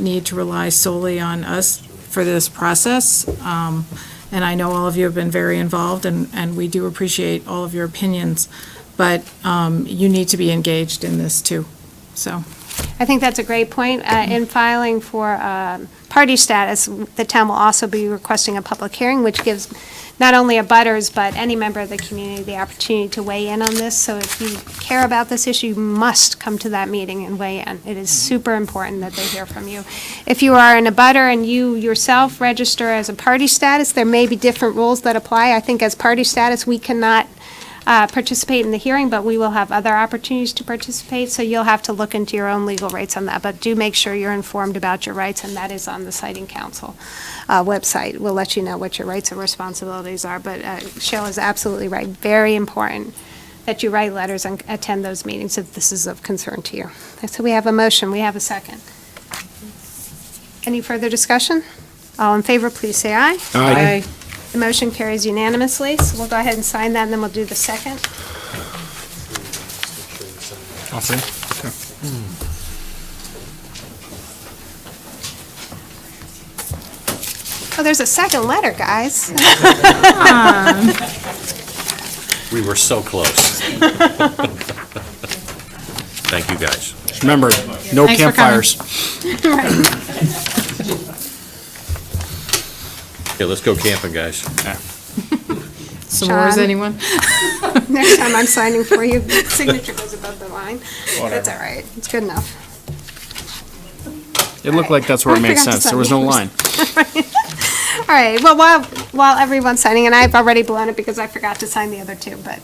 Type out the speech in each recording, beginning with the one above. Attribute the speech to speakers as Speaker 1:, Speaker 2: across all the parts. Speaker 1: need to rely solely on us for this process. Um, And I know all of you have been very involved, and, and we do appreciate all of your opinions, but um, you need to be engaged in this too, so.
Speaker 2: I think that's a great point. Uh, In filing for um, party status, the town will also be requesting a public hearing, which gives not only abutters but any member of the community the opportunity to weigh in on this. So if you care about this issue, you must come to that meeting and weigh in. It is super important that they hear from you. If you are in a butter and you yourself register as a party status, there may be different rules that apply. I think as party status, we cannot uh, participate in the hearing, but we will have other opportunities to participate, so you'll have to look into your own legal rights on that, but do make sure you're informed about your rights, and that is on the Siting Council uh, website. We'll let you know what your rights and responsibilities are, but uh, Cheryl is absolutely right, very important that you write letters and attend those meetings if this is of concern to you. So we have a motion, we have a second. Any further discussion? All in favor, please say aye.
Speaker 3: Aye.
Speaker 2: The motion carries unanimously, so we'll go ahead and sign that, and then we'll do the second. Oh, there's a second letter, guys.
Speaker 4: We were so close. Thank you, guys.
Speaker 3: Just Remember, no
Speaker 1: Thanks for coming.
Speaker 3: campfires.
Speaker 4: Okay, let's go camping, guys.
Speaker 1: S'mores,
Speaker 2: Sean?
Speaker 1: anyone?
Speaker 2: Next time I'm signing for you, signature goes above the line. That's all right, it's good enough.
Speaker 3: It looked like that's where it
Speaker 2: I
Speaker 3: made
Speaker 2: forgot to
Speaker 3: sense. There
Speaker 2: sign
Speaker 3: was no
Speaker 2: yours.
Speaker 3: line.
Speaker 2: All right, well, while, while everyone's signing, and I've already blown it because I forgot to sign the other two, but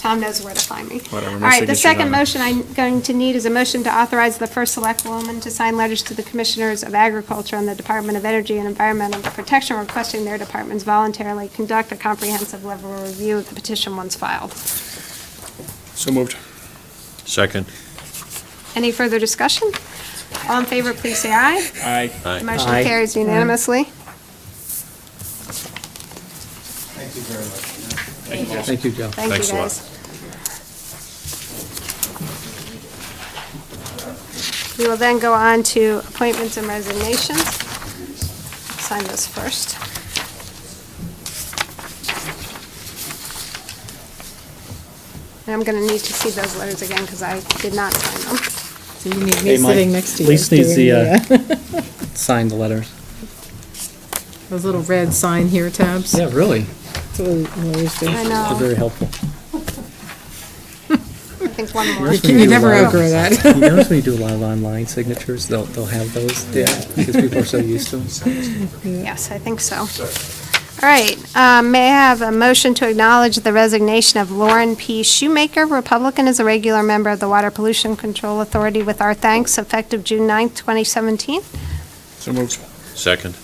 Speaker 2: Tom knows where to find me.
Speaker 3: Whatever,
Speaker 2: All
Speaker 3: my
Speaker 2: right, the
Speaker 3: signature's
Speaker 2: second
Speaker 3: on it.
Speaker 2: motion I'm going to need is a motion to authorize the first select woman to sign letters to the Commissioners of Agriculture and the Department of Energy and Environmental Protection requesting their departments voluntarily conduct a comprehensive level review of the petition once filed.
Speaker 3: So moved.
Speaker 4: Second,
Speaker 2: Any further discussion? All in favor, please say aye.
Speaker 3: Aye.
Speaker 2: The
Speaker 4: aye.
Speaker 2: Motion carries unanimously.
Speaker 5: Thank you, Joe.
Speaker 2: Thank
Speaker 4: Thanks
Speaker 2: you,
Speaker 4: a lot.
Speaker 2: guys. We will then go on to appointments and resignations. Sign this first. And I'm going to need to see those letters again because I did not sign them.
Speaker 1: So you need me
Speaker 5: Hey, Mike,
Speaker 1: sitting next to you.
Speaker 5: Elise needs
Speaker 1: doing
Speaker 5: the, uh, sign the letters.
Speaker 1: Those little red sign here tabs.
Speaker 5: Yeah, really?
Speaker 1: That's what we always do.
Speaker 2: I
Speaker 5: They're
Speaker 2: know,
Speaker 5: very helpful.
Speaker 2: I think one more.
Speaker 5: Yours
Speaker 1: You
Speaker 5: when do
Speaker 1: never
Speaker 5: live-
Speaker 1: outgrow that.
Speaker 5: You notice when you do a lot of online signatures, they'll, they'll have those? Yeah. Because people are so used to them.
Speaker 2: Yes, I think so. All right, um, may I have a motion to acknowledge the resignation of Lauren P. Shoemaker, Republican, as a regular member of the Water Pollution Control Authority with our thanks, effective June 9th, 2017.
Speaker 3: So moved.
Speaker 4: Second,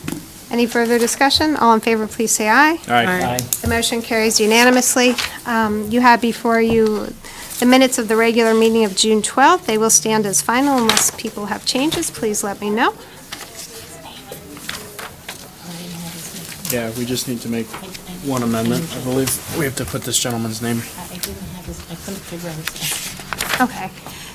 Speaker 2: Any further discussion? All in favor, please say aye.
Speaker 3: Aye.
Speaker 1: Aye.
Speaker 2: The motion carries unanimously. Um, You have before you the minutes of the regular meeting of June 12th. They will stand as final unless people have changes, please let me know.
Speaker 3: Yeah, we just need to make one amendment, I believe. We have to put this gentleman's name.
Speaker 6: I I didn't have this, I couldn't figure out his.
Speaker 2: Okay.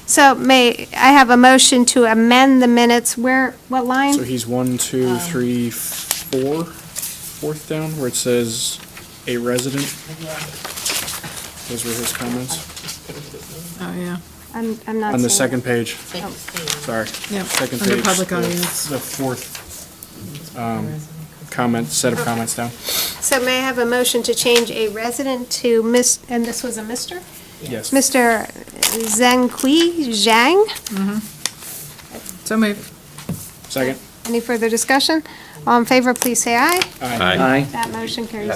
Speaker 2: So may, I have a motion to amend the minutes, where, what line?
Speaker 3: So he's one, two, three, four, fourth down, where it says a resident. Those were his comments.
Speaker 1: Oh, yeah,
Speaker 2: I'm, I'm not
Speaker 3: On the
Speaker 2: seeing it.
Speaker 3: second page,
Speaker 6: Big
Speaker 3: sorry,
Speaker 1: yeah.
Speaker 3: second page.
Speaker 1: Under public
Speaker 3: the-
Speaker 1: audience.
Speaker 3: The fourth Um, comment, set of comments down.
Speaker 2: So may I have a motion to change a resident to Miss, and this was a Mr.?
Speaker 3: Yes.
Speaker 2: Mr. Zhangqi Zhang?
Speaker 1: So moved.
Speaker 3: Second.
Speaker 2: Any further discussion? All in favor, please say aye.
Speaker 4: aye.
Speaker 5: Aye.
Speaker 2: That motion carries.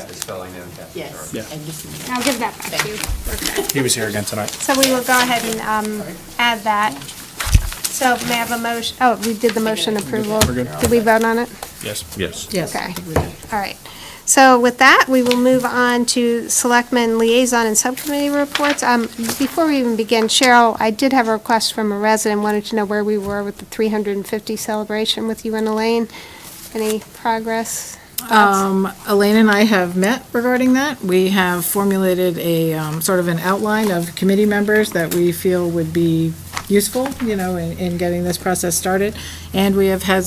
Speaker 6: Yes.
Speaker 3: Yeah.
Speaker 6: And this-
Speaker 2: I'll give that back to you.
Speaker 3: He was here again tonight.
Speaker 2: So we will go ahead and um, add that. So may I have a motion, oh, we did the motion approval.
Speaker 3: We're good.
Speaker 2: Did we vote on it?
Speaker 3: Yes.
Speaker 4: Yes.
Speaker 1: Yes.
Speaker 2: Okay. All right. So with that, we will move on to Selectmen Liaison and Subcommittee Reports. Um, Before we even begin, Cheryl, I did have a request from a resident, wanted to know where we were with the 350 celebration with you and Elaine. Any progress?
Speaker 1: Um, Elaine and I have met regarding that. We have formulated a, um, sort of an outline of committee members that we feel would be useful, you know, in, in getting this process started. And we have had